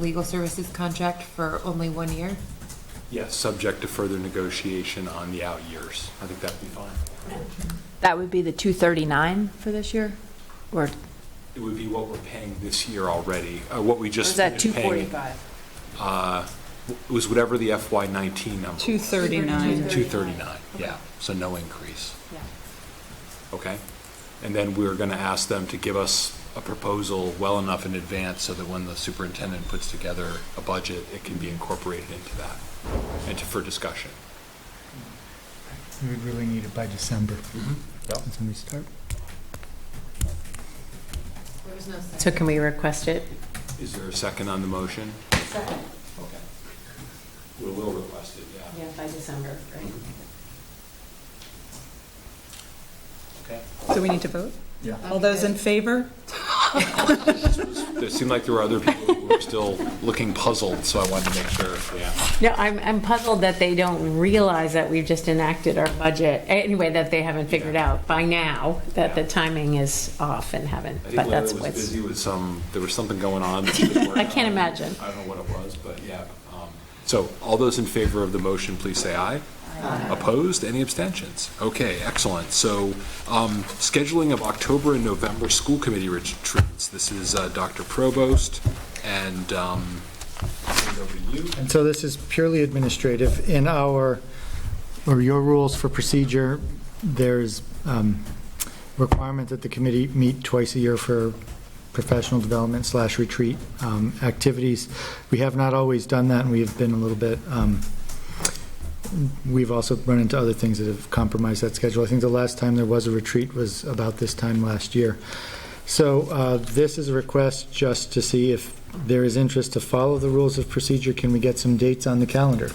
legal services contract for only one year? Yes, subject to further negotiation on the out years. I think that'd be fine. That would be the 239 for this year? Or It would be what we're paying this year already, uh, what we just. was that finished paying. 245? It was whatever the FY nineteen number. Two thirty-nine. Two thirty-nine, yeah, so no increase. Okay? And then we're gonna ask them to give us a proposal well enough in advance so that when the superintendent puts together a budget, it can be incorporated into that and to- for discussion. We would really need it by December. That's when we start. So can we request it? Is there a second on the motion? Okay. We will request it, yeah. by December, right? Okay. So we need to vote? Yeah. All those in favor? It seemed like there were other people who were still looking puzzled, so I wanted to make sure, yeah. No, I'm, I'm puzzled that they don't realize that we've just enacted our budget, anyway, that they haven't figured out by now that the Yeah. timing is off and haven't, I but think that's Larry was what's, busy with some, there was something going on. that he was working I can't on. imagine. I don't know what it was, but yeah. um, So all those in favor of the motion, please say aye. Opposed? Any abstentions? Okay, excellent. So um, scheduling of October and November school committee retreats. This is uh, Dr. Provost and um, I'll turn it over to you. And so this is purely administrative. In our, or your rules for procedure, there's um, requirement that the committee meet twice a year for professional development slash retreat um, activities. We have not always done that, and we have been a little bit, um, we've also run into other things that have compromised that schedule. I think the last time there was a retreat was about this time last year. So uh, this is a request just to see if there is interest to follow the rules of procedure. Can we get some dates on the calendar?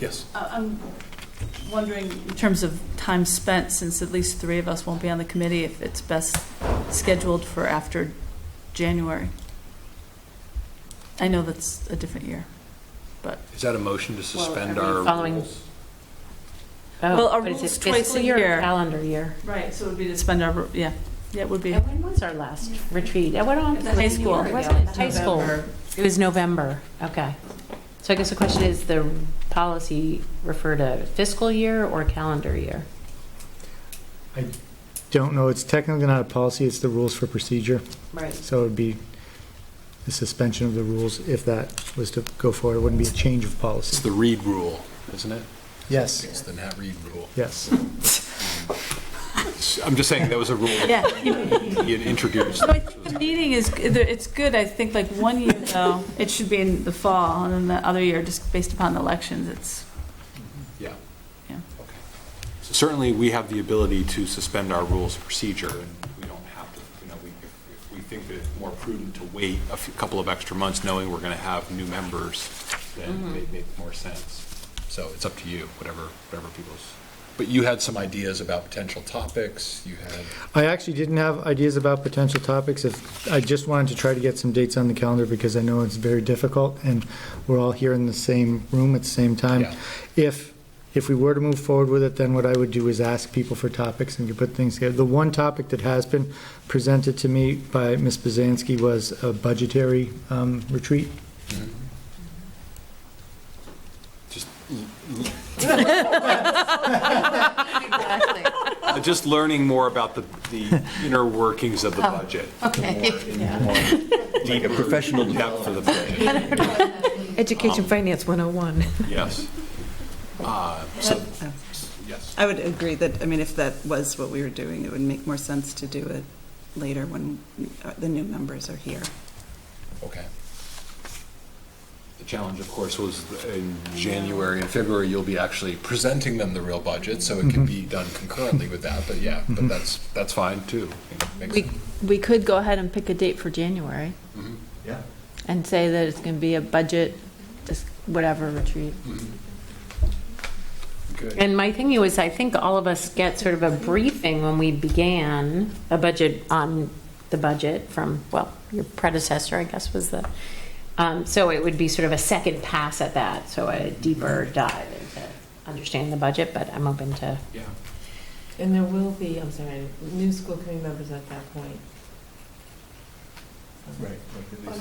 Yes. I- Uh, I'm wondering, in terms of time spent, since at least three of us won't be on the committee, if it's best scheduled for after January. I know that's a different year. Is that a motion to suspend our following- rules? oh, Well, our but is it rules twice a fiscal year or year. Calendar year. Right, so it would be to spend our, yeah, yeah, it would be. And when was our last retreat? At what, It was high school. Wasn't it high school? It was November, okay. So I guess the question is, the policy refer to fiscal year or calendar year? Don't know, it's technically not a policy, it's the rules for procedure. Right. So it would be the suspension of the rules if that was to go forward. It wouldn't be a change of It's policy. the Reed rule, isn't it? Yes, It's the Nat Reed rule. yes. I'm just saying, that was a rule Yeah. he had introduced. So I think the meeting is, it's good, I think, like, one year, though, it should be in the fall, and then the other year, just based upon the elections, it's, Yeah. Yeah. Okay. So Certainly, we have the ability to suspend our rules of procedure, and we don't have to, you know, we, if we think that it's more prudent to wait a few- couple of extra months, knowing we're going to have new members, then it may make more sense. So it's up to you, whatever, whatever people's, but you had some ideas about potential topics, you had. I actually didn't have ideas about potential topics. If, I just wanted to try to get some dates on the calendar because I know it's very difficult and we're all here in the same room at the same time. Yeah. If, if we were to move forward with it, then what I would do is ask people for topics and could put things together. The one topic that has been presented to me by Ms. Bazansky was a budgetary um, retreat. Exactly. Uh, Just learning more about the, the inner workings of the budget. Okay. Professional depth of the budget. Education Um, Finance 101. Yes. Uh, So, yes. I would agree that, I mean, if that was what we were doing, it would make more sense to do it later when uh, the new members are here. Okay. The challenge, of course, was in January and February, you'll be actually presenting them the real budget, so it can be done concurrently with that, but yeah, but that's, that's fine too. Makes We- sense. We could go ahead and pick a date for January Yeah. and say that it's going to be a budget, dis- whatever retreat. Good. And my thinking was, I think all of us get sort of a briefing when we began a budget on the budget from, well, your predecessor, I guess, was the, um, so it would be sort of a second pass at that, so a deeper dive into understanding the budget, but I'm open to. Yeah. And there will be, I'm sorry, new school committee members at that point. Right.